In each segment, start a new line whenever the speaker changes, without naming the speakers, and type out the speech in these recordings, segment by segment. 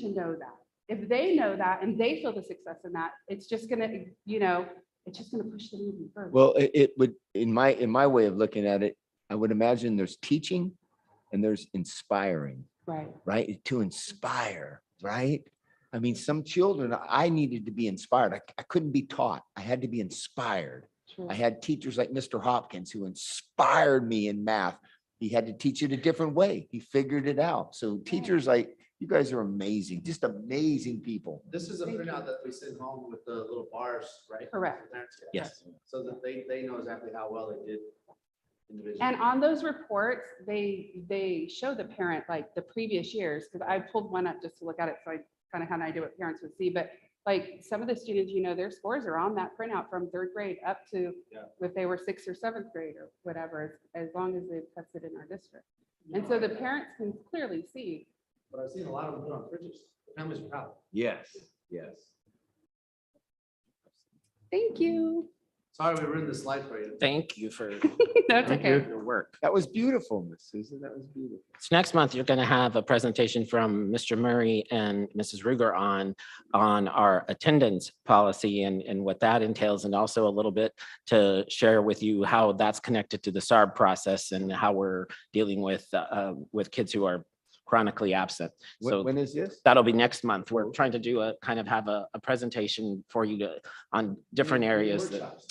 to know that. If they know that and they feel the success in that, it's just gonna, you know, it's just gonna push them even further.
Well, it, it would, in my, in my way of looking at it, I would imagine there's teaching and there's inspiring,
Right,
right? To inspire, right? I mean, some children, I needed to be inspired. I, I couldn't be taught. I had to be inspired.
true.
I had teachers like Mr. Hopkins who inspired me in math. He had to teach it a different way. He figured it out. So teachers like, you guys are amazing, just amazing people.
This is a
Thank you.
printout that we send home with the little bars, right?
Correct.
For parents to get.
Yes.
So that they, they know exactly how well they did individually.
And on those reports, they, they show the parent like the previous years, because I pulled one up just to look at it, so I kind of had an idea what parents would see, but like some of the students, you know, their scores are on that printout from third grade up to
Yeah.
if they were sixth or seventh grade or whatever, as long as they've tested in our district. And so the parents can clearly see,
But I've seen a lot of them put on fridges. The Families are proud.
Yes, yes.
thank you.
Sorry, we ruined the slide for you.
Thank you for
That's
your
okay.
your work.
That was beautiful, Miss Susan. That was beautiful.
So next month, you're going to have a presentation from Mr. Murray and Mrs. Ruger on, on our attendance policy and, and what that entails, and also a little bit to share with you how that's connected to the SARB process and how we're dealing with, uh, with kids who are chronically absent.
When,
So
when is this?
that'll be next month. We're trying to do a, kind of have a, a presentation for you to, on different areas that
Workshops.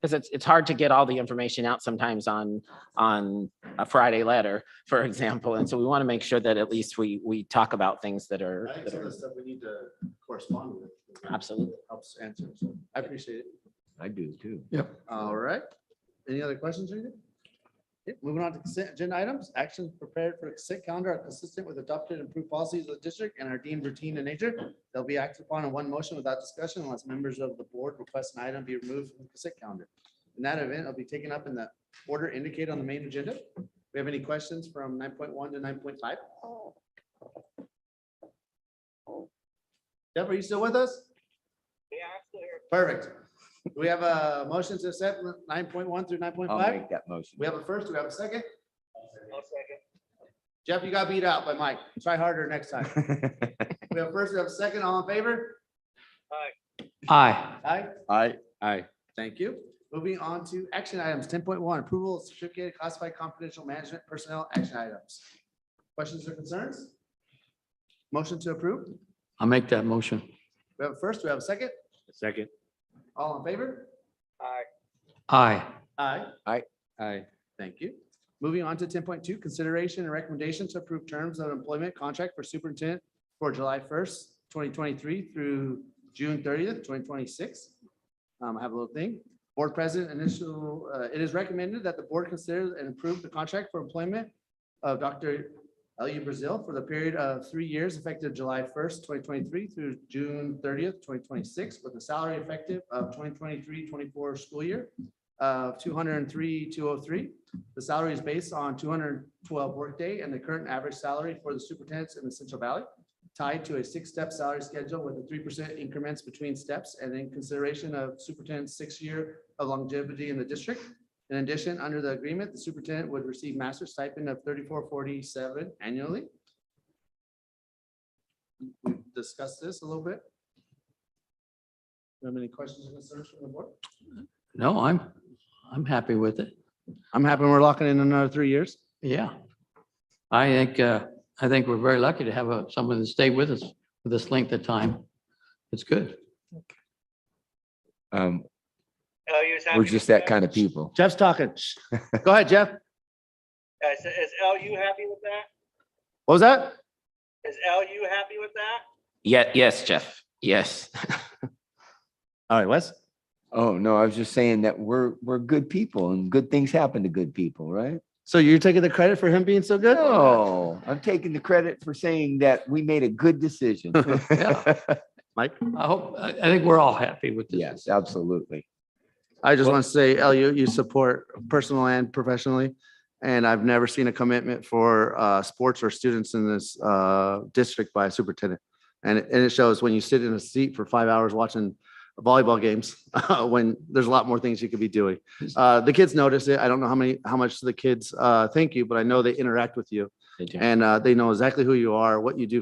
Because it's, it's hard to get all the information out sometimes on, on a Friday letter, for example. And so we want to make sure that at least we, we talk about things that are,
I think
that
some of the
are,
stuff we need to correspond with.
Absolutely.
Helps answer. So I appreciate it.
I do too.
All right. Any other questions or anything? Okay, Moving on to consent agenda items, actions prepared for consent calendar are consistent with adopted and approved policies of the district and are deemed routine in nature. They'll be acted upon in one motion without discussion unless members of the board request an item be removed from the consent calendar. In that event, it'll be taken up in the order indicated on the main agenda. We have any questions from nine point one to nine point five? Deb, are you still with us? Yeah, I'm still here. Perfect. Do We have a motion to accept nine point one through nine point
I'll
five.
make that motion.
We have a first, we have a second? Jeff, you got beat out by Mike. Try harder next time. We have a first, we have a second, all in favor?
Aye.
Aye.
I,
Aye.
Thank you. Moving on to action items, ten point one, approval of certificated classified confidential management personnel action items. Questions or concerns? Motion to approve.
I'll make that motion.
We have a first, we have a second,
Second.
all in favor?
Aye.
Aye.
Aye.
Thank you. Moving on to ten point two, consideration and recommendation to approve terms of employment contract for superintendent for July first, twenty twenty-three through June thirtieth, twenty twenty-six. Um, I have a little thing. Board President, initial, uh, it is recommended that the board consider and approve the contract for employment of Dr. Elu Brazil for the period of three years effective July first, twenty twenty-three through June thirtieth, twenty twenty-six, with a salary effective of 2023-24 school year of two hundred and three, two oh three. The salary is based on two hundred and twelve workday and the current average salary for the superintendents in the Central Valley, tied to a six-step salary schedule with a three percent increments between steps and in consideration of superintendent's six-year of longevity in the district. In addition, under the agreement, the superintendent would receive master stipend of thirty-four forty-seven annually. We discussed this a little bit. Do you have any questions or concerns from the board?
No, I'm, I'm happy with it.
I'm happy we're locking in another three years.
Yeah. I think, uh, I think we're very lucky to have a- someone that stayed with us for this length of time. It's good.
um,
Oh, you was happy.
we're
with
just that
that?
kind of people.
Jeff's talking. Go ahead, Jeff.
Uh, Is, is LU happy with that?
What was that?
Is LU happy with that?
yeah, yes, Jeff, yes.
All right, Wes.
Oh, no, I was just saying that we're, we're good people and good things happen to good people, right?
So you're taking the credit for him being so good?
No, I'm taking the credit for saying that we made a good decision.
I hope, I, I think we're all happy with this.
Yes, absolutely.
I just want to say, LU, you support personal and professionally. And I've never seen a commitment for uh, sports or students in this uh, district by a superintendent. And it, and it shows when you sit in a seat for five hours watching volleyball games, when there's a lot more things you could be doing. Uh, The kids notice it. I don't know how many, how much the kids uh, thank you, but I know they interact with you.
They do.
And uh, they know exactly who you are, what you do